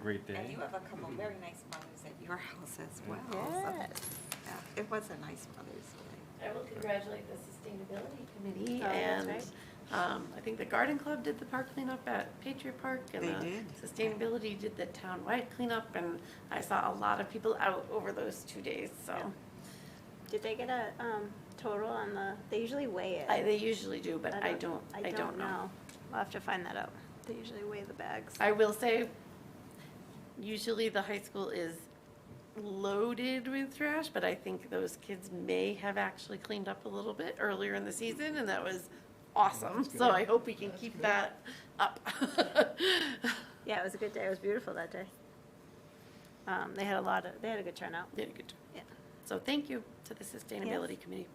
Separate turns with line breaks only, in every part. Great
And
day.
you have a couple very nice mothers at your house as well. so,
Yes.
yeah, It was a nice Mother's Day.
I will congratulate the sustainability committee
Oh, that's
and, um, I think the garden club did the park cleanup at Patriot Park and
They
the
did.
sustainability did the townwide cleanup and I saw a lot of people out over those two days, so.
Did they get a um, total on the? They usually weigh it.
I, they usually do, but I don't, I don't know.
We'll have to find that out. They usually weigh the bags.
I will say, usually the high school is loaded with trash, but I think those kids may have actually cleaned up a little bit earlier in the season, and that was awesome. So I hope we can keep that up.
Yeah, it was a good day. It was beautiful that day. Um, they had a lot of. They had a good turnout.
Did a good job.
Yeah.
So thank you to the Sustainability Committee.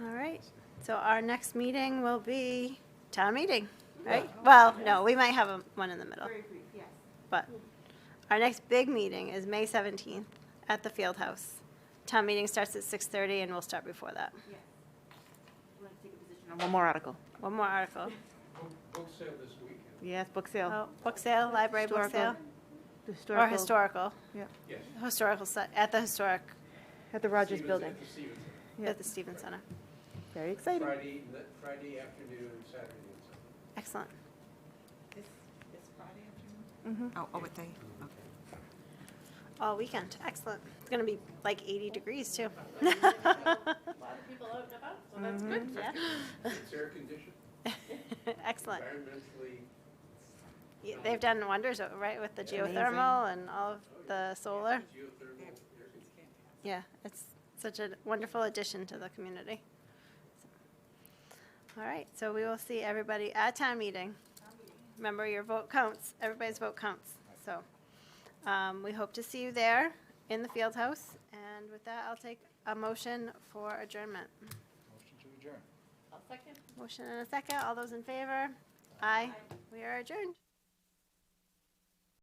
All right. So our next meeting will be town meeting, right? Well, no, we might have a, one in the middle. Very brief, yes. But our next big meeting is May seventeenth at the field house. Town meeting starts at six thirty and we'll start before that.
One more article.
One more article.
Book sale this weekend,
Yes, book sale.
Oh, book sale, library book sale,
Historical.
or historical,
yes.
historical, si- at the historic,
At the Rogers
Stevens-
Building.
at the Stevens.
at the Stevens Center.
Very exciting.
Friday, n- Friday afternoon, and Saturday and Sunday.
Excellent.
This, this Friday afternoon?
Mhm.
Oh, oh, what day? Okay.
All weekend, excellent. It's gonna be like eighty degrees too.
A lot of people out and about, so that's good.
Yeah.
It's air conditioned,
Excellent.
environmentally,
Yeah, They've done wonders, uh, right, with the
Amazing.
geothermal and all of the solar.
geothermal, air conditioning.
Yeah, it's such a wonderful addition to the community. All right, so we will see everybody at town meeting. Remember, your vote counts, everybody's vote counts. So um, we hope to see you there in the field house. And with that, I'll take a motion for adjournment.
Motion to adjourn.
I'll second.
Motion and a second, all those in favor? Aye, we are adjourned.